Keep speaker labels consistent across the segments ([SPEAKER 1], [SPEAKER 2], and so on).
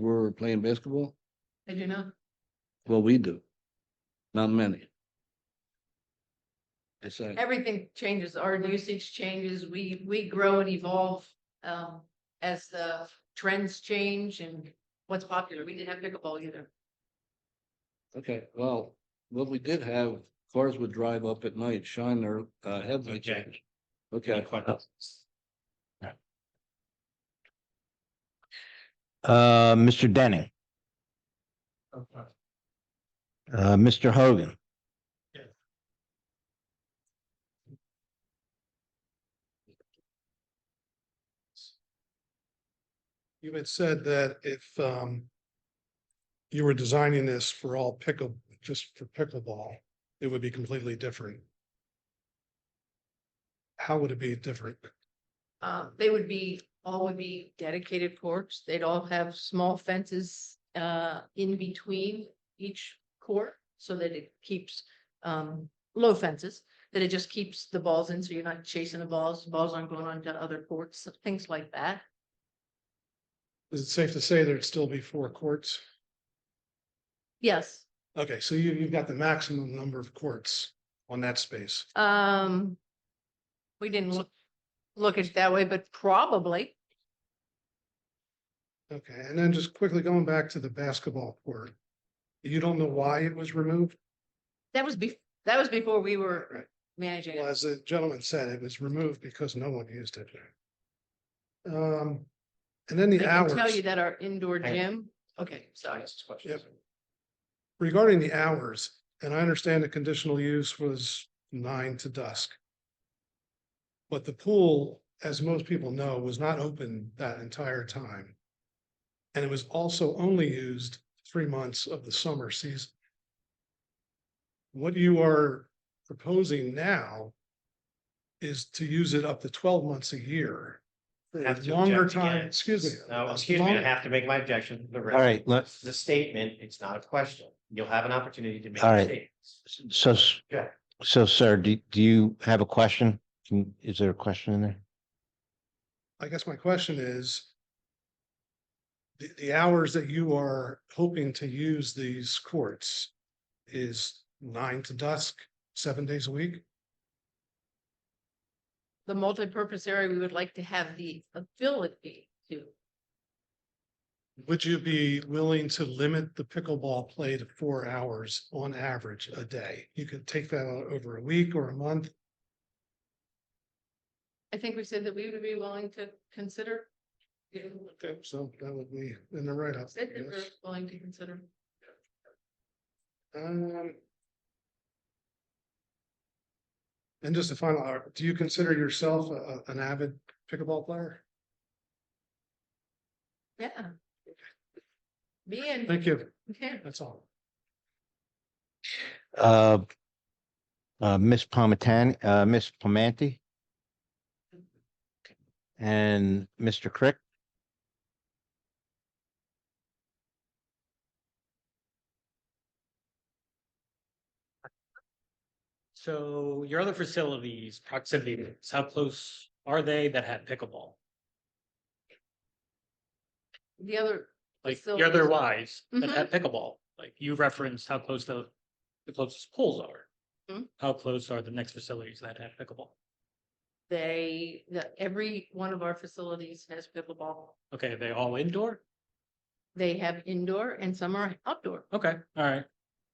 [SPEAKER 1] where we're playing basketball?
[SPEAKER 2] I do not.
[SPEAKER 1] Well, we do. Not many. It's like,
[SPEAKER 2] Everything changes, our usage changes, we, we grow and evolve, um, as the trends change and what's popular, we didn't have pickleball either.
[SPEAKER 1] okay, well, what we did have, cars would drive up at night, shine their uh headlights.
[SPEAKER 3] Okay.
[SPEAKER 1] Okay,
[SPEAKER 3] Uh, Mr. Denning, uh, Mr. Hogan.
[SPEAKER 4] Yes.
[SPEAKER 5] You had said that if um. You were designing this for all pickle, just for pickleball, it would be completely different. How would it be different?
[SPEAKER 2] Um, they would be, all would be dedicated courts, they'd all have small fences, uh, in between each court. So that it keeps, um, low fences, that it just keeps the balls in, so you're not chasing the balls, balls aren't going onto other courts, things like that.
[SPEAKER 5] Is it safe to say there'd still be four courts?
[SPEAKER 2] Yes,
[SPEAKER 5] Okay, so you you've got the maximum number of courts on that space.
[SPEAKER 2] Um, we didn't look, look at it that way, but probably,
[SPEAKER 5] Okay, and then just quickly going back to the basketball court. You don't know why it was removed?
[SPEAKER 2] that was be, that was before we were
[SPEAKER 5] Right.
[SPEAKER 2] managing
[SPEAKER 5] Well,
[SPEAKER 2] it.
[SPEAKER 5] as the gentleman said, it was removed because no one used it. Um, and then
[SPEAKER 2] I
[SPEAKER 5] the
[SPEAKER 2] can tell
[SPEAKER 5] hours,
[SPEAKER 2] you that our indoor
[SPEAKER 3] Hang on.
[SPEAKER 2] gym, okay, sorry,
[SPEAKER 5] Yep. regarding the hours, and I understand the conditional use was nine to dusk. But the pool, as most people know, was not open that entire time. And it was also only used three months of the summer season. What you are proposing now is to use it up to twelve months a year. for
[SPEAKER 6] have to
[SPEAKER 5] Longer
[SPEAKER 6] object
[SPEAKER 5] time,
[SPEAKER 6] again.
[SPEAKER 5] excuse me.
[SPEAKER 6] No, excuse me, I
[SPEAKER 5] long-
[SPEAKER 6] have to make my objection. The
[SPEAKER 3] All right, let's,
[SPEAKER 6] The statement, it's not a question. You'll have an opportunity to make.
[SPEAKER 3] All right.
[SPEAKER 6] statements.
[SPEAKER 3] so, s-
[SPEAKER 6] Yeah.
[SPEAKER 3] so sir, do, do you have a question? Can, is there a question in there?
[SPEAKER 5] I guess my question is. The, the hours that you are hoping to use these courts is nine to dusk, seven days a week?
[SPEAKER 2] the multipurpose area, we would like to have the ability to.
[SPEAKER 5] Would you be willing to limit the pickleball play to four hours on average a day? You could take that out over a week or a month.
[SPEAKER 2] I think we said that we would be willing to consider. Said
[SPEAKER 5] Okay, So that would be in the write-up. I
[SPEAKER 2] that we're
[SPEAKER 5] guess.
[SPEAKER 2] willing to consider.
[SPEAKER 5] Um, And just a final, uh, do you consider yourself a- a- an avid pickleball player?
[SPEAKER 2] Yeah. Me and,
[SPEAKER 5] Thank you.
[SPEAKER 2] yeah,
[SPEAKER 5] That's all.
[SPEAKER 3] Uh, uh, Ms. Pometani, uh, Ms. Pomanti? And Mr. Crick?
[SPEAKER 4] So your other facilities, proximity, to this, how close are they that have pickleball?
[SPEAKER 2] the other,
[SPEAKER 4] Like
[SPEAKER 2] So-
[SPEAKER 4] your other wives that
[SPEAKER 2] Mhm.
[SPEAKER 4] have pickleball, like you referenced how close the, the closest pools are.
[SPEAKER 2] Mhm.
[SPEAKER 4] How close are the next facilities that have pickleball?
[SPEAKER 2] they, that every one of our facilities has pickleball.
[SPEAKER 4] Okay, are they all indoor?
[SPEAKER 2] They have indoor and some are outdoor.
[SPEAKER 4] Okay, all right.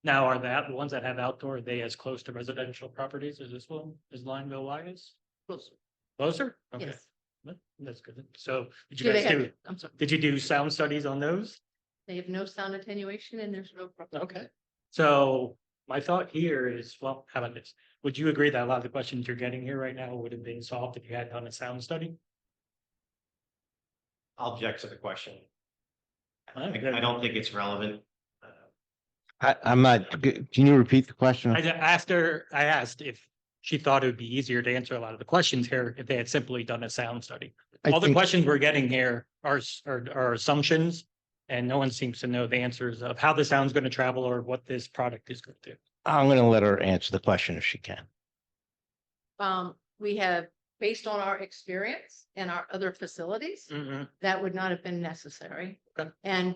[SPEAKER 4] Now, are that, the ones that have outdoor, are they as close to residential properties as this one, as Lineville Y is?
[SPEAKER 2] Closer.
[SPEAKER 4] Closer? Okay,
[SPEAKER 2] Yes.
[SPEAKER 4] that- That's good. So did
[SPEAKER 2] Do
[SPEAKER 4] you
[SPEAKER 2] they
[SPEAKER 4] guys
[SPEAKER 2] have-
[SPEAKER 4] do,
[SPEAKER 2] I'm sorry,
[SPEAKER 4] did you do sound studies on those?
[SPEAKER 2] they have no sound attenuation and there's no. problem.
[SPEAKER 4] Okay, so my thought here is, well, how about this? Would you agree that a lot of the questions you're getting here right now would have been solved if you had done a sound study?
[SPEAKER 6] I'll object to the question.
[SPEAKER 4] All
[SPEAKER 6] I
[SPEAKER 4] right.
[SPEAKER 6] I don't think it's relevant. Uh,
[SPEAKER 3] I, I'm not, g- can you repeat the question?
[SPEAKER 4] I ju- asked her, I asked if she thought it would be easier to answer a lot of the questions here if they had simply done a sound study.
[SPEAKER 3] I
[SPEAKER 4] All the
[SPEAKER 3] think-
[SPEAKER 4] questions we're getting here are, s- are, are assumptions. And no one seems to know the answers of how the sound's going to travel or what this product is going to do.
[SPEAKER 3] I'm gonna let her answer the question if she can.
[SPEAKER 2] Um, we have, based on our experience and our other facilities, that would not have been necessary.
[SPEAKER 4] Mm. Okay.
[SPEAKER 2] And